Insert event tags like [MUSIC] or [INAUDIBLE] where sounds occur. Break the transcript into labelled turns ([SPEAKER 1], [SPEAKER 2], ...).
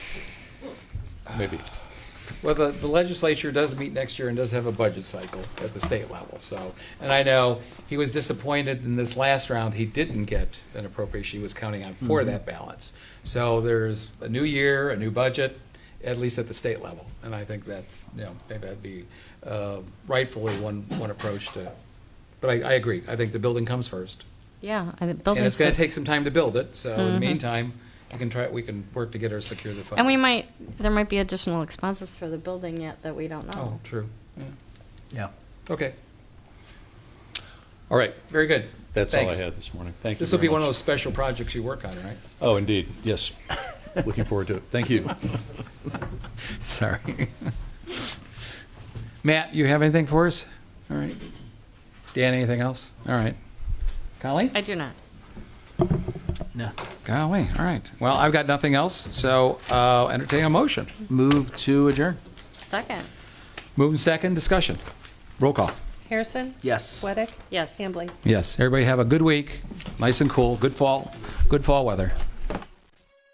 [SPEAKER 1] maybe. Well, the, the legislature does meet next year and does have a budget cycle at the state level, so. And I know he was disappointed in this last round, he didn't get an appropriation he was counting on
[SPEAKER 2] Mm-hmm.
[SPEAKER 1] for that balance. So there's a new year, a new budget, at least at the state level. And I think that's, you know, maybe that'd be uh, rightfully one, one approach to, but I, I agree. I think the building comes first.
[SPEAKER 2] Yeah, I think
[SPEAKER 1] And it's
[SPEAKER 2] buildings,
[SPEAKER 1] gonna
[SPEAKER 2] look-
[SPEAKER 1] take some time to build it, so in the meantime, we can try, we can work together to secure the funding.
[SPEAKER 2] Mm-hmm. and we might, there might be additional expenses for the building yet that we don't
[SPEAKER 1] Oh,
[SPEAKER 2] know.
[SPEAKER 1] true. Yeah.
[SPEAKER 3] Yeah.
[SPEAKER 1] Okay,
[SPEAKER 4] All right,
[SPEAKER 1] very good.
[SPEAKER 4] that's all I
[SPEAKER 1] Thanks.
[SPEAKER 4] had this morning. Thank you
[SPEAKER 1] This will
[SPEAKER 4] very
[SPEAKER 1] be one of
[SPEAKER 4] much.
[SPEAKER 1] those special projects you work on,
[SPEAKER 4] [LAUGHS]
[SPEAKER 1] right?
[SPEAKER 4] Oh, indeed, yes. Looking forward to it. Thank
[SPEAKER 1] [LAUGHS]
[SPEAKER 4] you.
[SPEAKER 1] Sorry. [LAUGHS] Matt, you have anything for us? All right. Dan, anything else? All right. Colleen?
[SPEAKER 2] I do not.
[SPEAKER 3] No.
[SPEAKER 1] Golly, all right. Well, I've got nothing else, so uh, entertain a motion.
[SPEAKER 3] Move to adjourn.
[SPEAKER 2] Second,
[SPEAKER 1] Move in second, discussion. Roll call.
[SPEAKER 5] Harrison?
[SPEAKER 3] Yes.
[SPEAKER 5] Sweattick?
[SPEAKER 2] yes.
[SPEAKER 5] Hambley?
[SPEAKER 1] Yes, everybody have a good week, nice and cool, good fall, good fall weather.